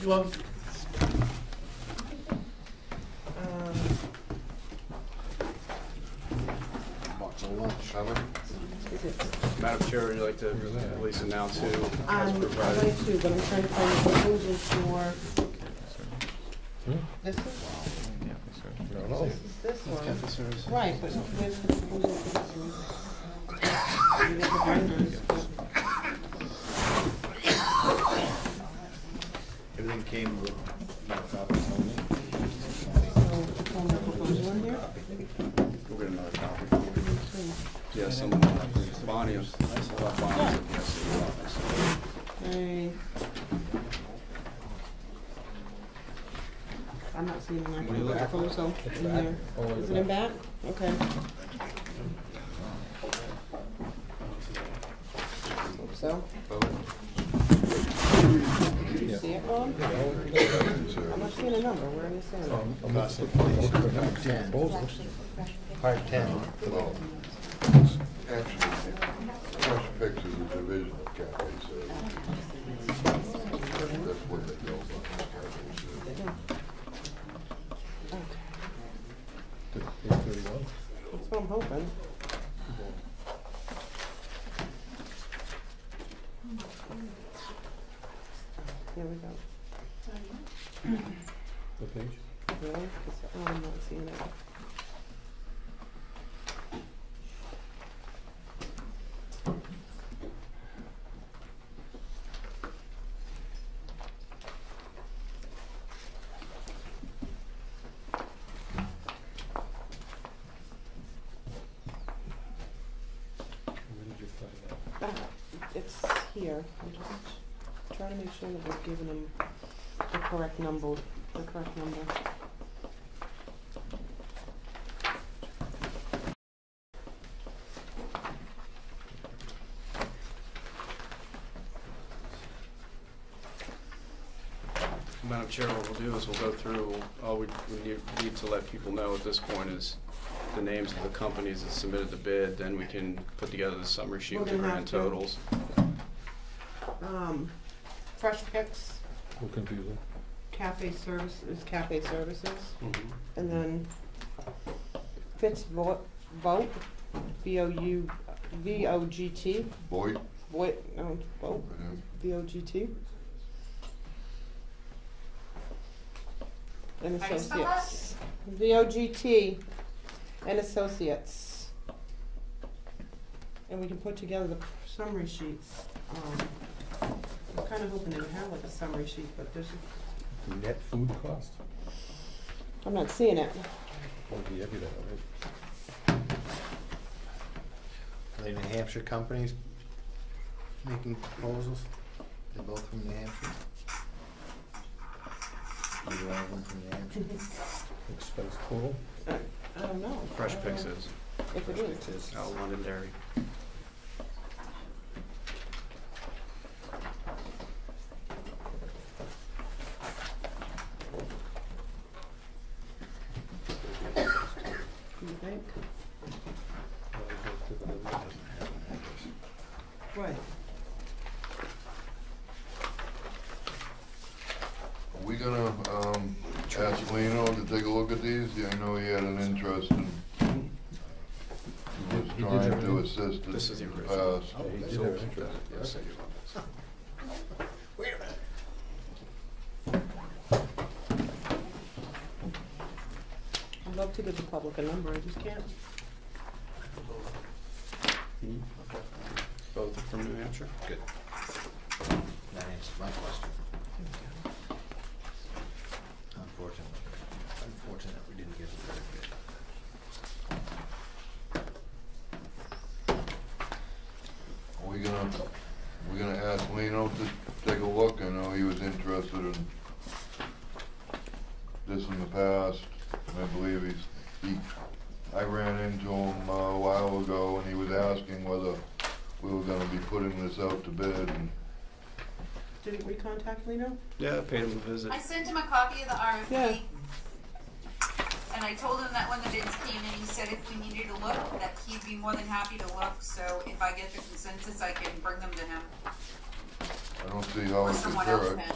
You're welcome. Um, Box of lunch, haven't is it- Madam Chair, would you like to at least announce who Um, has I'd provided? like to, but I'm trying to find the proposal for this one. I don't know. This is this one. Cafe services. Right, but where's the proposal for this one? You got the vendors, but- Everything came with, no copy, only. so, from the proposal in here? We'll get another copy. Yes, someone, Bonnie, is- I saw Bonnie's at the SAU office. Hey. I'm not seeing an actual proposal in here. Is it in back? Okay. Hope so. Did you see it, Bob? I'm not seeing a number, where is it? Part ten. Well, Actually, Fresh Fix is a division of Cafe Services. That's what they go by, Cafe Services. That's what I'm hoping. Here we go. What page? Really? 'Cause, oh, I'm not seeing it. Where did you find that? Ah, It's here, I'm just trying to make sure that we're giving them the correct number, the correct number. Madam Chair, what we'll do is we'll go through, all we we need- need to let people know at this point is the names of the companies that submitted the bid, then we can put together the summary sheet with the Well, they grand have to. totals. Um, Fresh Picks, What computer? Cafe Services, Cafe Services, Mhm. and then Fitz Vo- Vogt, V O U, V O G T, Boyd, Voit, no, Vogt, and V O G T. And Associates. V O G T and Associates. And we can put together the summary sheets. Um, I'm kind of hoping they would have like a summary sheet, but there's, Net food cost? I'm not seeing it. Would be everything, right? Are they New Hampshire companies making proposals? They're both from New Hampshire? Either one of them from New Hampshire? Expense total? I I don't know. Fresh I don't Picks know is If it is. out of London Dairy. You think? Right. Are we gonna, um, ask Lino to take a look at these? Yeah, I know he had an interest in, he was He did trying to everything. assist us This is the in uh, the original. past. Yeah, he did So, everything. uh, yes, I do. I'd love to give the public a number, I just can't. Both are from New Hampshire? Good. That answers my question. Unfortunately, unfortunate we didn't get the third bid. Are we gonna, we gonna ask Lino to take a look? I know he was interested in this in the past, and I believe he's, he, I ran into him uh, a while ago, and he was asking whether we were gonna be putting this out to bid, and Didn't we contact Lino? Yeah, I paid him a visit. I sent him a copy of the RFP. Yeah. And I told him that when the bids came in, he said if we needed to look, that he'd be more than happy to look, so if I get the consensus, I can bring them to him, I don't see how or it's someone else occurred. can.